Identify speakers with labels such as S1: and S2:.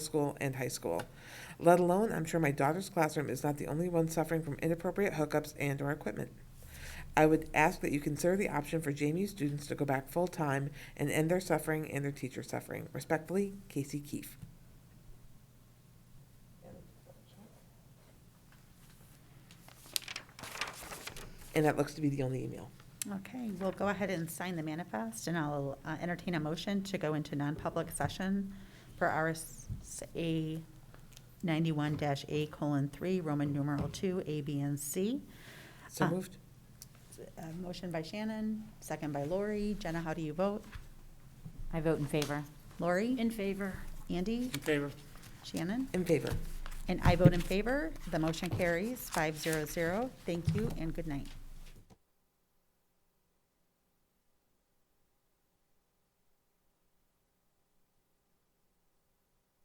S1: school and high school. Let alone, I'm sure my daughter's classroom is not the only one suffering from inappropriate hookups and or equipment. I would ask that you consider the option for JMU students to go back full-time and end their suffering and their teacher suffering. Respectfully, Casey Keefe. And that looks to be the only email.
S2: Okay, we'll go ahead and sign the manifest, and I'll uh, entertain a motion to go into non-public session for RSA ninety-one dash A colon three, Roman numeral two, A, B, and C.
S1: So
S2: Ah.
S1: moved?
S2: Uh, Motion by Shannon, second by Lori. Jenna, how do you vote?
S3: I vote in favor.
S2: Lori?
S3: In favor.
S2: Andy?
S4: In favor?
S2: Shannon?
S1: In favor?
S2: And I vote in favor. The motion carries five zero zero. Thank you and good night.